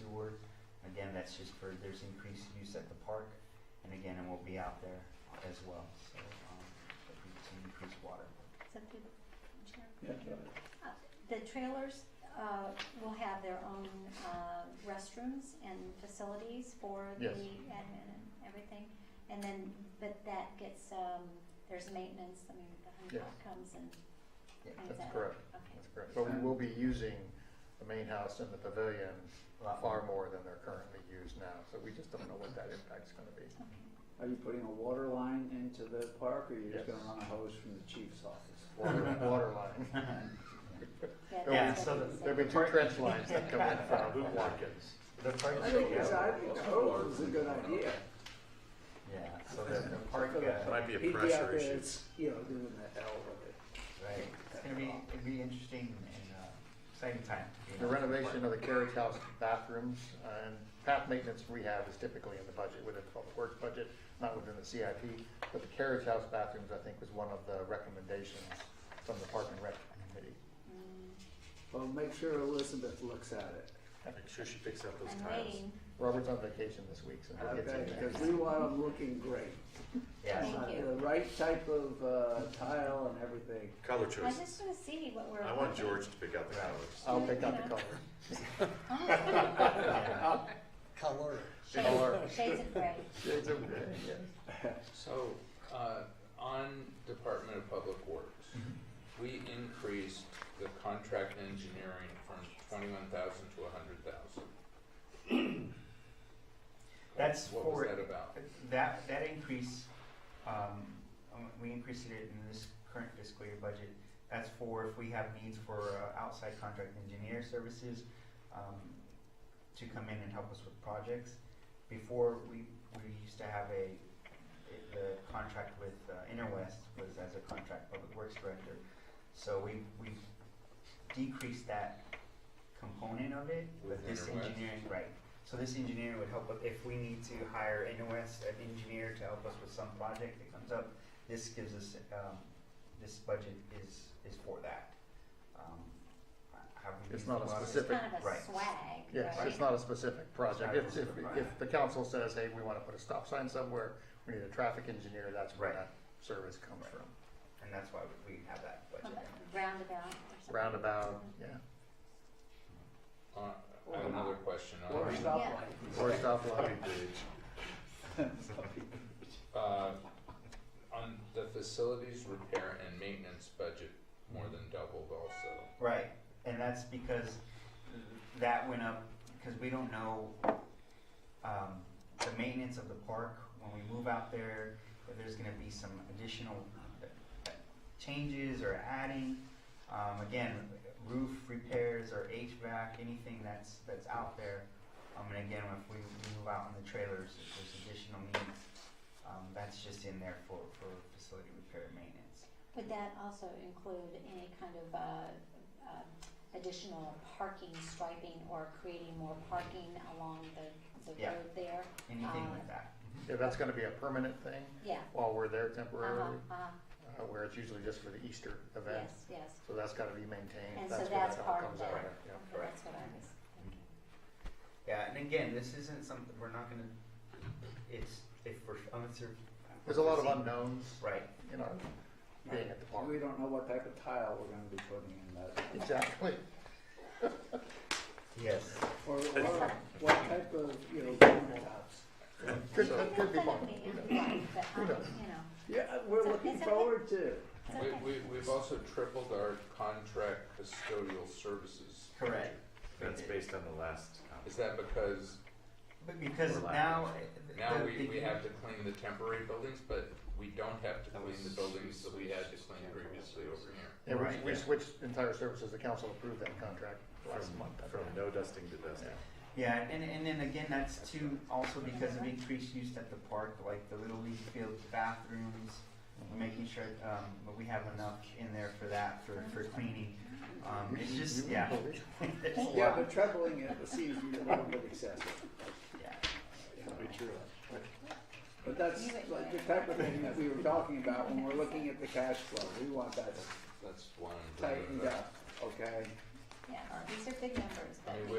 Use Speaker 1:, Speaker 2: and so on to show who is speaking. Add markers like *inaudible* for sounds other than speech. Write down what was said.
Speaker 1: sewer. Again, that's just for, there's increased use at the park, and again, it will be out there as well, so, um, it'll be to increase water.
Speaker 2: Is that the chair?
Speaker 3: Yeah, that's right.
Speaker 2: Uh, The trailers uh, will have their own uh, restrooms and facilities for the
Speaker 4: Yes.
Speaker 2: admin and everything. And then, but that gets, um, there's maintenance, I mean, the
Speaker 4: Yes.
Speaker 2: Huncock comes and
Speaker 1: Yeah,
Speaker 2: cleans that.
Speaker 4: That's
Speaker 2: up.
Speaker 4: correct.
Speaker 2: Okay.
Speaker 4: That's correct. But we will be using the main house and the pavilion
Speaker 1: A lot
Speaker 4: far more than they're currently used now. So we just don't know what that impact's gonna *laughs* be.
Speaker 2: Okay.
Speaker 3: Are you putting a water line into the park, or you're just
Speaker 4: Yes.
Speaker 3: gonna run a hose from the chief's office?
Speaker 4: Water, water
Speaker 2: *laughs*
Speaker 4: line.
Speaker 2: Yeah,
Speaker 4: There'll be-
Speaker 2: that's
Speaker 1: so
Speaker 2: what
Speaker 1: the-
Speaker 2: he
Speaker 4: There'll be
Speaker 2: said.
Speaker 4: two trench lines that come in from Watkins.
Speaker 1: *laughs* The park,
Speaker 3: I think it's,
Speaker 1: yeah,
Speaker 3: I think a hose is a good idea.
Speaker 1: so the, the park,
Speaker 3: *laughs*
Speaker 1: uh,
Speaker 3: It
Speaker 1: right,
Speaker 5: might be a
Speaker 3: He'd be out
Speaker 5: pressure
Speaker 3: there,
Speaker 5: issue.
Speaker 3: it's, you know, doing the L with it.
Speaker 1: it's gonna be, it'll be interesting and, uh, exciting time. you
Speaker 4: The
Speaker 1: know,
Speaker 4: renovation of the carriage house bathrooms and path maintenance rehab is typically in the budget, within the public works budget, not within the CIP. But the carriage house bathrooms, I think, was one of the recommendations from the Park and Rec Committee.
Speaker 2: Mm,
Speaker 3: Well, make sure Elizabeth looks at it,
Speaker 5: Make sure she picks up those
Speaker 2: I'm
Speaker 5: tiles.
Speaker 2: waiting.
Speaker 4: Robert's on vacation this week, so he'll get
Speaker 3: okay,
Speaker 4: to
Speaker 3: because
Speaker 4: that.
Speaker 3: we want them looking great.
Speaker 1: Yeah,
Speaker 2: Thank
Speaker 3: Uh,
Speaker 2: you.
Speaker 3: The right type of, uh, tile and everything.
Speaker 5: Color
Speaker 2: I
Speaker 5: choice.
Speaker 2: just want to see what we're.
Speaker 5: I want
Speaker 2: looking.
Speaker 5: George to pick out the colors.
Speaker 4: I'll pick out the color.
Speaker 3: *laughs*
Speaker 6: color.
Speaker 4: Color.
Speaker 2: *laughs* Shades, shades of gray.
Speaker 4: Shades of gray, yes.
Speaker 7: So, uh, on Department of Public Works,
Speaker 1: Mm-hmm.
Speaker 7: we increased the contract engineering from twenty-one thousand to a hundred thousand.
Speaker 1: *clears throat* That's
Speaker 7: What was
Speaker 1: for-
Speaker 7: that about?
Speaker 1: That, that increase, um, um, we increased it in this current fiscal year budget. That's for if we have needs for uh, outside contract engineer services, um, to come in and help us with projects. Before, we, we used to have a, it- the contract with uh, Interwest was as a contract public works director. So we, we decreased that component of it with
Speaker 7: With
Speaker 1: this
Speaker 7: Interwest?
Speaker 1: engineering, right. So this engineer would help, with- if we need to hire Interwest, an engineer to help us with some project that comes up, this gives us, um, this budget is, is for that. Um, Have we
Speaker 4: It's
Speaker 1: used
Speaker 4: not a
Speaker 1: lot of-
Speaker 2: It's
Speaker 4: specific-
Speaker 2: kind of a
Speaker 1: Right.
Speaker 2: swag, right?
Speaker 4: Yes, it's not a specific project. If, if, if the council says, hey, we wanna put a stop sign somewhere, we need a traffic engineer, that's where
Speaker 1: Right.
Speaker 4: that service comes from.
Speaker 1: And that's why we we have that budget.
Speaker 2: Roundabout or something.
Speaker 4: Roundabout, yeah.
Speaker 7: Uh, I have another question
Speaker 3: Or a
Speaker 7: on,
Speaker 3: stoplight.
Speaker 4: Or a stoplight.
Speaker 5: Puppy bridge.
Speaker 7: uh, on the facilities repair and maintenance budget more than doubled also.
Speaker 1: Right, and that's because that went up, because we don't know, um, the maintenance of the park, when we move out there, if there's gonna be some additional uh, changes or adding, um, again, roof repairs or HVAC, anything that's, that's out there. Um, and again, if we move out in the trailers, if there's additional needs, um, that's just in there for, for facility repair and maintenance.
Speaker 2: Would that also include any kind of uh, um, additional parking striping or creating more parking along the, the
Speaker 1: Yeah.
Speaker 2: road there?
Speaker 1: Anything
Speaker 2: Uh,
Speaker 1: like that.
Speaker 4: Yeah, that's gonna be a permanent thing
Speaker 2: Yeah.
Speaker 4: while we're there
Speaker 2: Uh-huh,
Speaker 4: temporarily,
Speaker 2: uh-huh.
Speaker 4: uh, where it's usually just for the Easter event.
Speaker 2: Yes, yes.
Speaker 4: So that's gotta be maintained.
Speaker 2: And so
Speaker 4: That's where
Speaker 2: that's
Speaker 4: that all
Speaker 2: part of
Speaker 4: comes out
Speaker 2: that.
Speaker 4: of. Yeah.
Speaker 2: Okay, that's what I was thinking.
Speaker 1: Yeah, and again, this isn't something, we're not gonna, it's, if we're, unless you're.
Speaker 4: There's a lot of unknowns,
Speaker 1: Right,
Speaker 4: you know, being at the park.
Speaker 3: We don't know what type of tile we're gonna be putting in that.
Speaker 4: Exactly.
Speaker 1: yes.
Speaker 3: Or, or what type of, you know, countertops.
Speaker 4: Could, that could be
Speaker 2: That'll
Speaker 4: fun.
Speaker 2: be implied, but
Speaker 4: Who
Speaker 2: I-
Speaker 4: knows?
Speaker 2: you know,
Speaker 3: Yeah, we're
Speaker 2: So
Speaker 3: looking
Speaker 2: it's okay.
Speaker 3: forward to.
Speaker 2: it's
Speaker 7: We,
Speaker 2: okay.
Speaker 7: we, we've also tripled our contract custodial services.
Speaker 1: Correct.
Speaker 5: That's based on the last comment.
Speaker 7: Is that because
Speaker 1: But because
Speaker 5: Or lack
Speaker 1: now. uh,
Speaker 7: Now
Speaker 1: the-
Speaker 7: we,
Speaker 1: the-
Speaker 7: we have to clean the temporary buildings, but we don't have to
Speaker 5: That
Speaker 7: clean the
Speaker 5: was-
Speaker 7: buildings that we had to clean previously over here.
Speaker 4: Yeah,
Speaker 1: Right,
Speaker 4: we, we
Speaker 1: yeah.
Speaker 4: switched entire services. The council approved that contract last
Speaker 5: From,
Speaker 4: month. I
Speaker 5: from
Speaker 4: think.
Speaker 5: no dusting to dusting.
Speaker 1: Yeah, and, and then again, that's too, also because of increased use at the park, like the Little League field bathrooms, making sure, um, but we have enough in there for that, for, for cleaning. Um, it's just, yeah. It's a
Speaker 3: Yeah,
Speaker 1: lot.
Speaker 3: but trebling it seems a little bit excessive.
Speaker 1: Yeah.
Speaker 3: But that's like the type of thing that we were talking about when we're looking at the cash flow. We want that
Speaker 7: That's one.
Speaker 3: tightened up, okay?
Speaker 2: Yeah, these are big numbers,
Speaker 7: I
Speaker 2: but
Speaker 7: mean,
Speaker 2: we
Speaker 7: we-